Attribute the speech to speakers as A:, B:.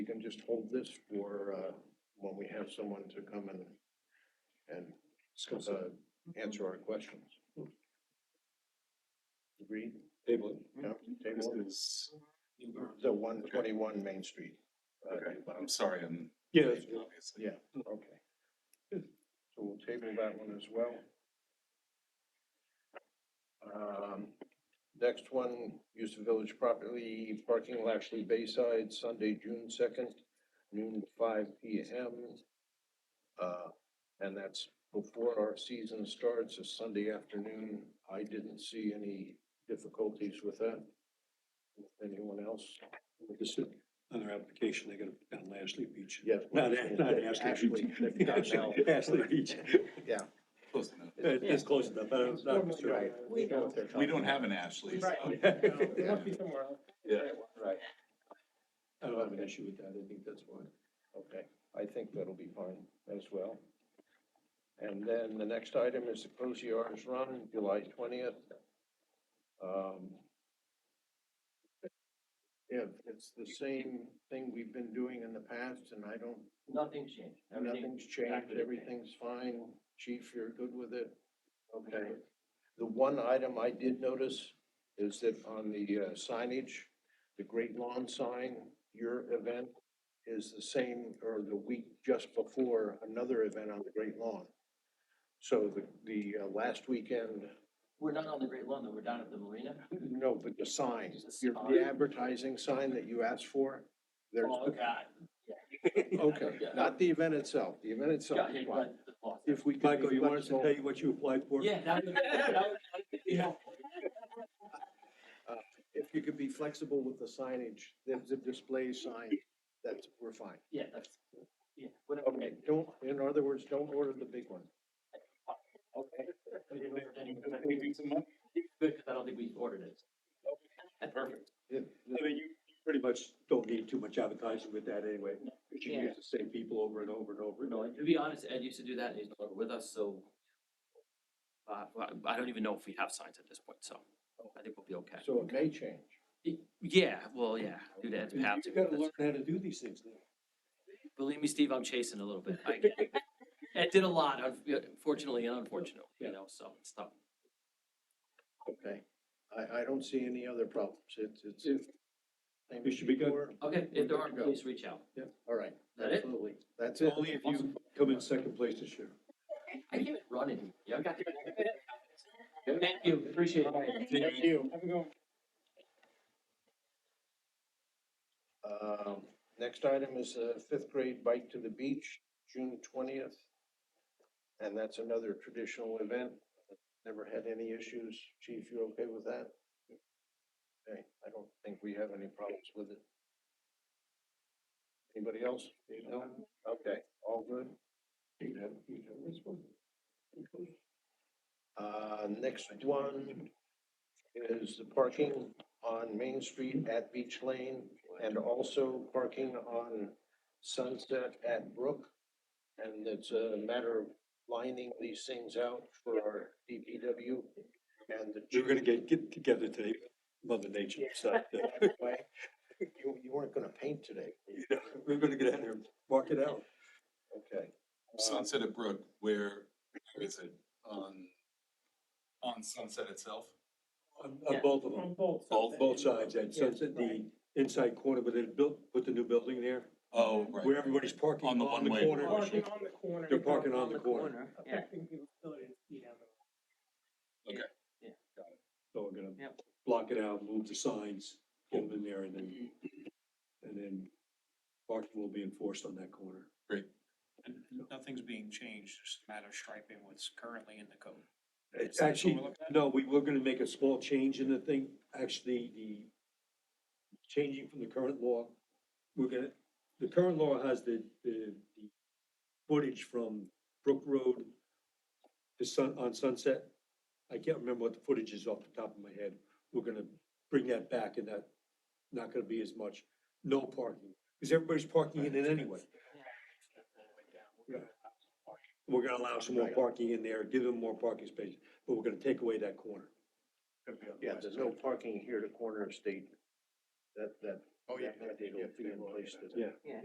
A: just hold this for, uh, when we have someone to come and, and, uh, answer our questions. Agreed?
B: Table
A: Yeah,
B: it. This
A: table it.
B: is.
A: The one twenty-one Main Street. uh,
B: Okay.
A: new bylaw.
B: I'm sorry, I'm.
A: Yeah, that's
B: Obviously.
A: Yeah, okay. So we'll table that one as well. Um, next one, use of village property, parking Lashley Bayside, Sunday, June second, noon to five P M. Uh, and that's before our season starts, a Sunday afternoon. I didn't see any difficulties with that. Anyone else?
C: This is another application they got down Lashley Beach.
A: Yes.
C: Not, Ash- not Ashley Beach.
A: Ashley.
C: Ashley Beach.
A: Yeah.
B: Close enough.
C: Uh, It's close enough, but I'm not concerned.
A: We know what they're
B: We
A: talking
B: don't
A: about.
B: have an Ashley, so.
A: It must
C: I
A: somewhere else.
B: Yeah.
A: Right,
C: don't have an issue with that. I think that's why.
A: okay, I think that'll be fine as well. And then the next item is the Cozy Run, July twentieth. Um. Yeah, it's the same thing we've been doing in the past, and I don't,
D: Nothing's changed. Everything,
A: nothing's changed,
D: exactly the same.
A: everything's fine. Chief, you're good with it? Okay. The one item I did notice is that on the uh, signage, the Great Lawn sign, your event is the same or the week just before another event on the Great Lawn. So the, the uh, last weekend,
D: we're not on the Great Lawn, though. We're down at the marina.
A: no, but the sign,
D: Just
A: your-
D: the
A: the advertising sign that you asked for, there's,
D: Oh, God.
A: okay, not the event itself, the event itself.
D: Yeah,
A: is
D: yeah,
A: fine.
D: but the law.
A: If we could. be
C: Michael, you want us to
A: flexible-
C: tell you what you applied for?
D: Yeah, that would, that would, you know,
A: if you could be flexible with the signage, the, the display sign, that's, we're fine.
D: yeah, that's, yeah, whatever.
A: Okay, don't, in other words, don't order the big one.
D: Okay.
B: Anything to add?
D: Good, 'cause I don't think we ordered it. Perfect.
A: If-
C: I mean, you you pretty much don't need too much advertising with that anyway. You should
D: Yeah.
C: use the same people over and over and over.
D: No, and to be honest, Ed used to do that, and he's no longer with us, so. Uh, well, I don't even know if we have signs at this point, so I think we'll be okay.
A: So it may change.
D: Yeah, well, yeah, do that, you have to.
C: You gotta
D: That's-
C: learn how to do these things now.
D: Believe me, Steve, I'm chasing a little bit. I it did a lot, unfortunately and unfortunately, you know, so it's tough.
A: Okay. I, I don't see any other problems. It's, it's. same
C: We should be good.
A: before.
D: Okay,
A: We're
D: if there
A: good
D: are,
A: to go.
D: please reach out.
A: Yeah, all right.
D: That it?
A: Absolutely. That's it.
C: Only if you come in second place this year.
D: I came in running. Yeah, I got there. Thank you, appreciate it.
A: Thank you. Have a good Um, next item is uh fifth grade bike to the beach, June twentieth. And that's another traditional event. Never had any issues. Chief, you okay with that? Okay, I don't think we have any problems with it. Anybody else? No? Okay, all good.
C: You have, you have this one.
A: Uh, next one is the parking on Main Street at Beach Lane and also parking on Sunset at Brook. And it's a matter of lining these things out for our DPW and the.
C: We were gonna get, get together today, Mother Nature, so, uh,
A: Way. You, you weren't gonna paint today,
C: you know, we we're gonna get out there and walk it out.
A: okay? Um,
B: Sunset at Brook, where is it? On, on Sunset itself?
C: On, on
D: Yeah.
C: both of them,
E: both.
B: Both?
C: both sides, and so it's at the inside corner, but it built, with the new building there,
B: Oh, right.
C: where everybody's parking
B: On
C: on
B: the
C: the
B: one-way
C: corner.
E: Parking on the corner.
C: They're parking on the corner,
D: Yeah,
E: Affecting the ability to see down the
C: so we're gonna
D: Yep.
C: block it out, move the signs, get them in there, and then, and then parking will be enforced on that corner.
F: And nothing's being changed, just a matter of striping what's currently in the code. Is
C: It's
F: that what
C: actually,
F: we're looking at?
C: no, we were gonna make a small change in the thing, actually, the changing from the current law, we're gonna, the current law has the, the, the footage from Brook Road to Sun, on Sunset. I can't remember what the footage is off the top of my head. We're gonna bring that back and that, not gonna be as much, no parking, because everybody's parking in it anyway. We're gonna allow some more parking in there, give them more parking space, but we're gonna take away that corner.
A: Yeah, there's no parking here to corner of state. That, that.
F: Oh, yeah.
A: That mandate will be in place today.